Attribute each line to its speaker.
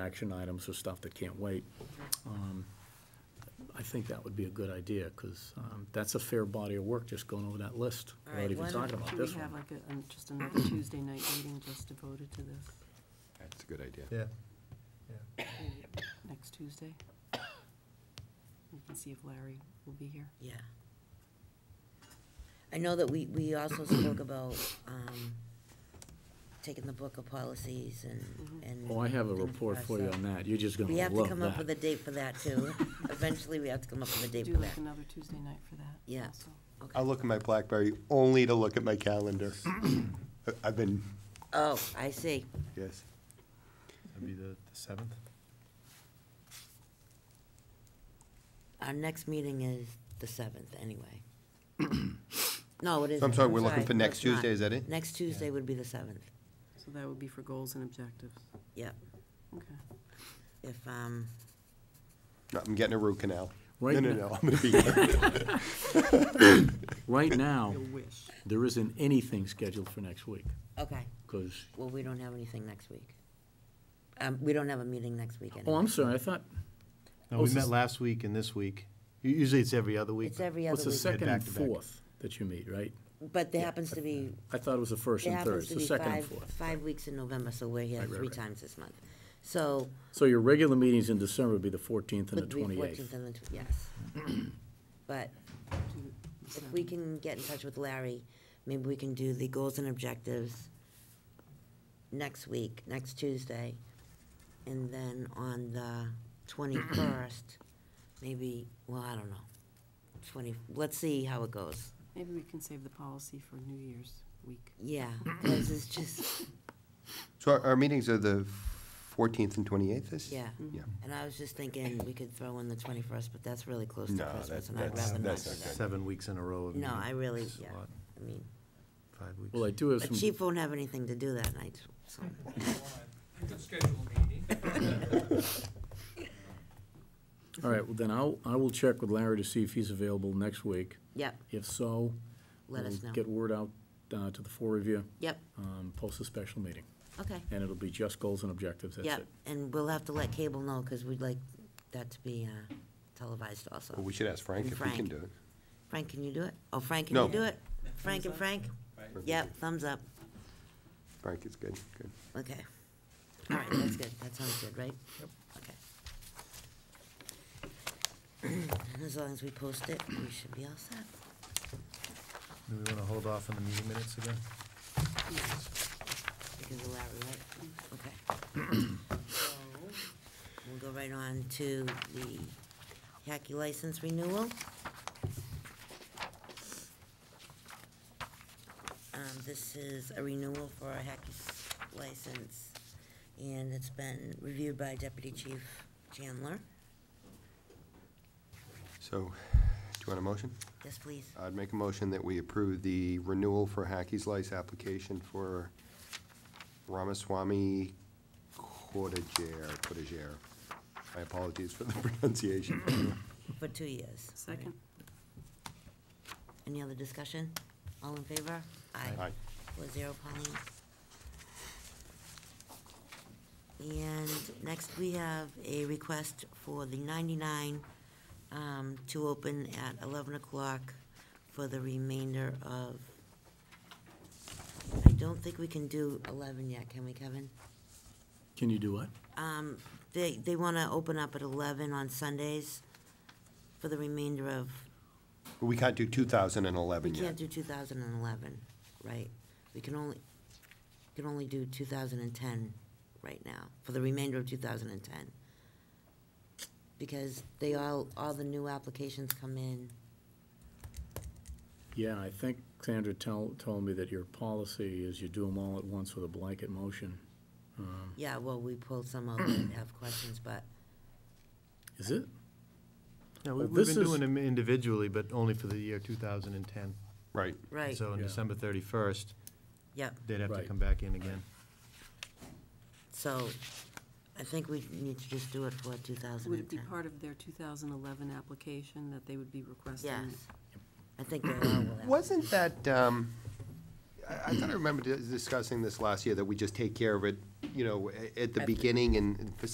Speaker 1: action items or stuff that can't wait. Um, I think that would be a good idea, because that's a fair body of work, just going over that list,
Speaker 2: All
Speaker 1: without
Speaker 2: right,
Speaker 1: even
Speaker 2: why don't-
Speaker 1: talking about this
Speaker 3: Should we have
Speaker 1: one.
Speaker 3: like a, um, just another Tuesday night meeting just devoted to this,
Speaker 4: That's a good idea.
Speaker 5: Yeah,
Speaker 3: next Tuesday? We can see if Larry will be here.
Speaker 2: Yeah. I know that we, we also spoke about, um, taking the book of policies and,
Speaker 3: Mm-hmm.
Speaker 2: and.
Speaker 1: Oh, I have a
Speaker 2: things
Speaker 1: report for you
Speaker 2: ourselves.
Speaker 1: on that, you're just gonna
Speaker 2: We have to
Speaker 1: love
Speaker 2: come up with a
Speaker 1: that.
Speaker 2: date for that too. Eventually, we have to come up with a date
Speaker 3: Do
Speaker 2: for that.
Speaker 3: like another Tuesday night for that
Speaker 2: Yeah.
Speaker 3: also.
Speaker 2: Okay.
Speaker 4: I'll look at my BlackBerry only to look at my calendar. I- I've been,
Speaker 2: Oh, I see.
Speaker 4: yes.
Speaker 5: that'd be the seventh.
Speaker 2: Our next meeting is the seventh, anyway. No, it isn't.
Speaker 4: I'm sorry, we're looking for
Speaker 2: No,
Speaker 4: next
Speaker 2: it's not.
Speaker 4: Tuesday, is that it?
Speaker 2: Next Tuesday would be the seventh,
Speaker 3: So that would be for goals and objectives.
Speaker 2: yep.
Speaker 3: Okay.
Speaker 2: If, um,
Speaker 4: No, I'm getting a root canal. No,
Speaker 1: Right
Speaker 4: no,
Speaker 1: now-
Speaker 4: no, I'm gonna be here.
Speaker 1: Right now,
Speaker 3: wish.
Speaker 1: there isn't anything scheduled for next week,
Speaker 2: okay,
Speaker 1: because,
Speaker 2: well, we don't have anything next week. Um, we don't have a meeting next week anyway.
Speaker 1: oh, I'm sorry, I thought,
Speaker 5: No,
Speaker 1: Oh,
Speaker 5: we
Speaker 1: so
Speaker 5: met
Speaker 1: s-
Speaker 5: last week and this week. U- Usually it's every other week.
Speaker 2: It's every
Speaker 1: well, it's
Speaker 2: other
Speaker 1: the
Speaker 2: week,
Speaker 1: second and
Speaker 5: Back to back.
Speaker 1: fourth that you meet, right?
Speaker 2: but there happens to be,
Speaker 1: I thought it was the first
Speaker 2: there
Speaker 1: and third,
Speaker 2: happens to
Speaker 1: it's the
Speaker 2: be
Speaker 1: second and
Speaker 2: five,
Speaker 1: fourth.
Speaker 2: five weeks in November, so we're here
Speaker 1: Right, right,
Speaker 2: three
Speaker 1: right.
Speaker 2: times this month. So,
Speaker 1: So your regular meetings in December would be the fourteenth and the
Speaker 2: would be fourteenth
Speaker 1: twenty-eighth.
Speaker 2: and the, tw- yes. But if we can get in touch with Larry, maybe we can do the goals and objectives next week, next Tuesday. And then on the twenty-first, maybe, well, I don't know, twenty, let's see how it goes.
Speaker 3: Maybe we can save the policy for New Year's week.
Speaker 2: Yeah, because it's just,
Speaker 4: So our, our meetings are the fourteenth and twenty-eighth, is?
Speaker 2: yeah.
Speaker 1: Mm-hmm.
Speaker 4: Yeah.
Speaker 2: And I was just thinking we could throw in the twenty-first, but that's really close to
Speaker 4: No,
Speaker 2: Christmas,
Speaker 4: that-
Speaker 2: and I'd
Speaker 4: that's-
Speaker 2: rather not
Speaker 4: that's
Speaker 2: do
Speaker 4: not
Speaker 2: that.
Speaker 5: Seven weeks in a row. of
Speaker 2: No,
Speaker 5: meeting.
Speaker 2: I really,
Speaker 5: It's a
Speaker 2: yeah,
Speaker 5: lot,
Speaker 2: I mean,
Speaker 5: Five weeks.
Speaker 1: Well, I do have
Speaker 2: the
Speaker 1: some.
Speaker 2: chief won't have anything to do that night, so.
Speaker 6: We could schedule a meeting.
Speaker 1: All right, well, then I'll, I will check with Larry to see if he's available next week.
Speaker 2: Yep,
Speaker 1: If so,
Speaker 2: let us
Speaker 1: we'll
Speaker 2: know.
Speaker 1: Get word out uh, to the four of you,
Speaker 2: Yep,
Speaker 1: um, post a special meeting,
Speaker 2: okay,
Speaker 1: and it'll be just goals and objectives, that's
Speaker 2: yep,
Speaker 1: it.
Speaker 2: and we'll have to let cable know, because we'd like that to be uh, televised
Speaker 4: Well,
Speaker 2: also.
Speaker 4: we should ask Frank if we can
Speaker 2: Frank.
Speaker 4: do it.
Speaker 2: Frank, can you do it? Oh, Frank, can
Speaker 4: No.
Speaker 2: you do it? Frank and Frank? Yep, thumbs up,
Speaker 4: Frank is good, good.
Speaker 2: okay. All right, that's good, that sounds good, right? Yep. Okay. As long as we post it, we should be all set.
Speaker 5: Do we want to hold off on the meeting minutes again?
Speaker 2: Because of Larry, right? Okay. So, We'll go right on to the hacky license renewal. Um, this is a renewal for our hacky s- license, and it's been reviewed by Deputy Chief Chandler.
Speaker 4: So, do you want a motion?
Speaker 2: Yes, please.
Speaker 4: I'd make a motion that we approve the renewal for Hacky's Lice application for Ramaswamy Cordiger, Cordiger. My apologies for the pronunciation.
Speaker 2: For two years.
Speaker 3: Second?
Speaker 2: Any other discussion? All in favor?
Speaker 4: Aye.
Speaker 2: Four zero, Pauline. And next, we have a request for the 99 um, to open at 11 o'clock for the remainder of, I don't think we can do 11 yet, can we, Kevin?
Speaker 1: Can you do what?
Speaker 2: Um, They, they want to open up at 11 on Sundays for the remainder of,
Speaker 4: We can't do two thousand and
Speaker 2: we
Speaker 4: eleven
Speaker 2: can't
Speaker 4: yet.
Speaker 2: do 2011, right? We can only, can only do 2010 right now, for the remainder of 2010. Because they all, all the new applications come in,
Speaker 1: Yeah, I think Sandra tell, told me that your policy is you do them all at once with a blanket motion. Um,
Speaker 2: yeah, well, we pulled some out that have questions, but,
Speaker 1: Is it?
Speaker 5: Yeah,
Speaker 1: Well,
Speaker 5: we- we've
Speaker 1: this
Speaker 5: been
Speaker 1: is-
Speaker 5: doing them individually, but only for the year two thousand and ten.
Speaker 4: Right.
Speaker 2: right,
Speaker 5: So on
Speaker 1: Yeah.
Speaker 5: December thirty-first,
Speaker 2: yep.
Speaker 5: they'd have to
Speaker 1: Right.
Speaker 5: come back in again.
Speaker 2: So I think we need to just do it for 2010.
Speaker 3: Would it be part of their 2011 application that they would be requesting?
Speaker 2: Yes. I think they all will have.
Speaker 4: Wasn't that, um, I, I thought I remember dis- discussing this last year, that we just take care of it, you know, a- at the
Speaker 2: At the-
Speaker 4: beginning and for